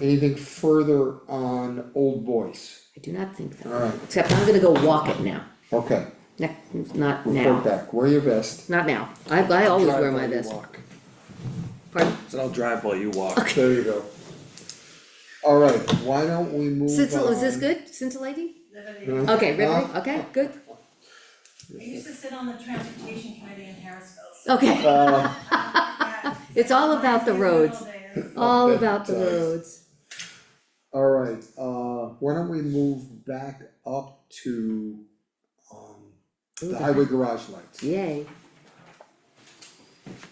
Anything further on old boys? I do not think that, Alright, except I'm gonna go walk it now, okay, Ne- not report now, back, wear your vest. not now, I, I always wear my Drive while you vest, walk. pardon, So I'll drive while you walk. There you go. Alright, why don't we move on? Uh-huh. Scintilla, is this good, scintillating? Liberty. No? Okay, riveting, Huh? okay, good, I used to sit on the transportation committee in Harrisville. okay, Uh, Yeah. It's all about the My roads. favorite old days. all about the Nice. roads, alright, uh, why don't we move back up to, um, the Ooh, the- highway garage lights? yay,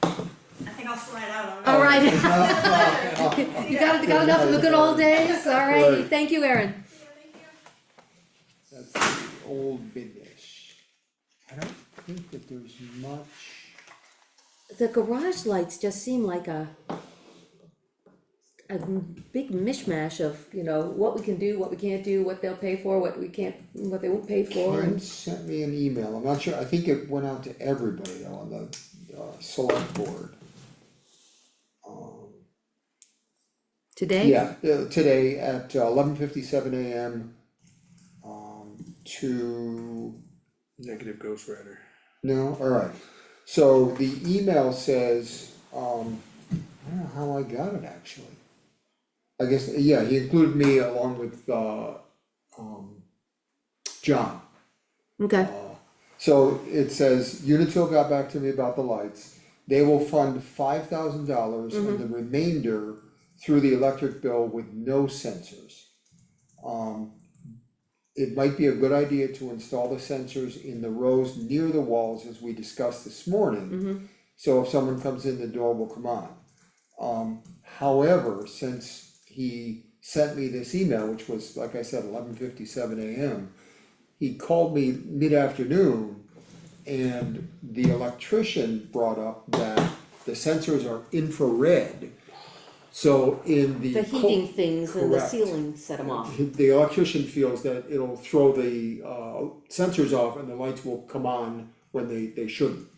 I think I'll slide out on that. alright. Alright. You got, got enough of the good old days, alrighty, thank you, Erin, That's the old business. I don't think that there's much, the garage lights just seem like a. A big mishmash of, you know, what we can do, what we can't do, what they'll pay for, what we can't, what they won't pay for, Ken and, sent me an email, I'm not sure, I think it went out to everybody though on the, uh, select board. today? Yeah, uh, today at eleven fifty-seven AM, um, to Negative Ghost Rider. No, alright, so the email says, um, I don't know how I got it actually. I guess, yeah, he included me along with, uh, um, John. Okay, So it says, Unitil got back to me about the lights, they will fund five thousand dollars and the remainder through the electric bill with no sensors. Um, it might be a good idea to install the sensors in the rows near the walls as we discussed this Mm-hmm. morning. So if someone comes in, the door will come on. Um, however, since he sent me this email, which was, like I said, eleven fifty-seven AM he called me mid-afternoon and the electrician brought up that the sensors are infrared. So in the. the co- heating things and the correct. ceiling set them off, The electrician feels that it'll throw the uh sensors off and the lights will come on when they they shouldn't.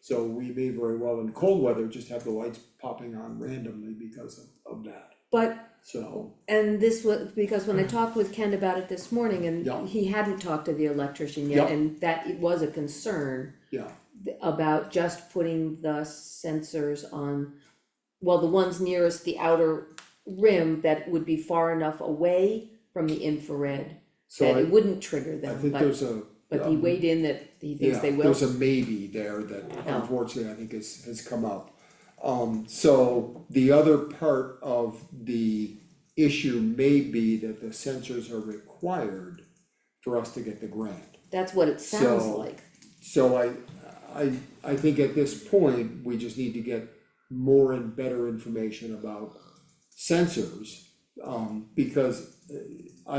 So we may very well in cold weather just have the lights popping on randomly because of of that, but, so. and this was, because when I talked with Ken about it this morning, Yeah. and he hadn't talked to the electrician yet, Yeah. and that it was a concern Yeah, about just putting the sensors on, well, the ones nearest the outer rim that would be far enough away from the infrared, so that it I wouldn't trigger I them, think but, there's a. but he um, weighed in that he thinks Yeah, they will. There's a maybe there that unfortunately I think has has come up. Um, so the other part of the issue may be that the sensors are required for us to get the grant. That's what it sounds So- like, So I, I, I think at this point, we just need to get more and better information about sensors. Um, because uh, I,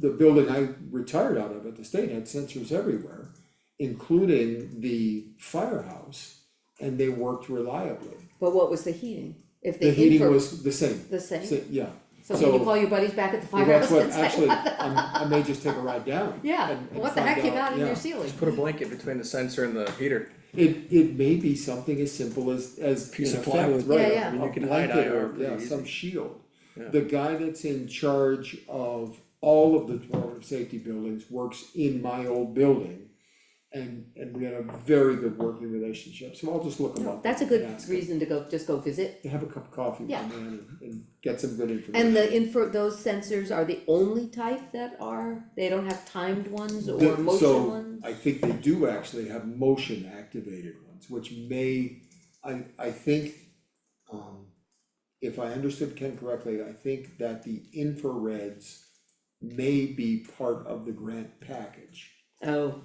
the building I retired out of at the state had sensors everywhere, including the firehouse, and they worked reliably. but what was the heating? If The the heating infra, was the same, the same? sa- yeah, So can you So- call your buddies back at the Well, firehouse that's what, and say, actually, I'm, I may just take a ride down. yeah, and- and what the find heck you out, got in yeah. your ceiling? Put a blanket between the sensor and the heater. It it may be something as simple as as Piece in of effect, plywood. right, Yeah, a- yeah. I mean, you a can hide blanket IR or, pretty yeah, easy. some shield. Yeah. The guy that's in charge of all of the Department of Safety buildings works in my old building. And and we had a very good working relationship, so I'll just look him No, up. That's a and good ask him. reason to go, just go visit. Have a cup of coffee with Yeah. him and and get some good information. And the infra, those sensors are the only type that are, they don't have timed ones or The- motion ones? So I think they do actually have motion activated ones, which may, I I think, um. If I understood Ken correctly, I think that the infrareds may be part of the grant package. Oh,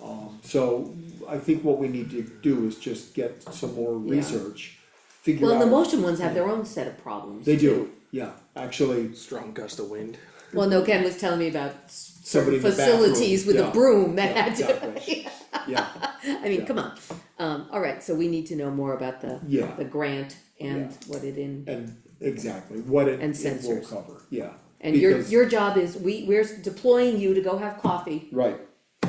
Um, so I think what we need to do is just get some more Yeah. research, figure out. well, the motion ones have their own set of problems. They do, yeah, actually, Strong gust of wind. Well, no, Ken was telling me about s- Somebody certain in the bathroom, facilities with a yeah. broom that yeah, had to, exactly, yeah, I mean, Yeah. come on. Um, alright, so we need to know more about the, Yeah. the grant and what it in. and exactly, what it And it will sensors. cover, yeah. And your, because- your job is, we, we're deploying you to go have coffee Right,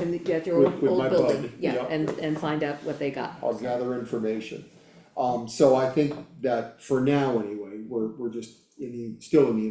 in the, at your With- old, with my old building, bud, yeah, yeah. and, and find out what they got. I'll gather information. Um, so I think that for now anyway, we're, we're just in the, still in the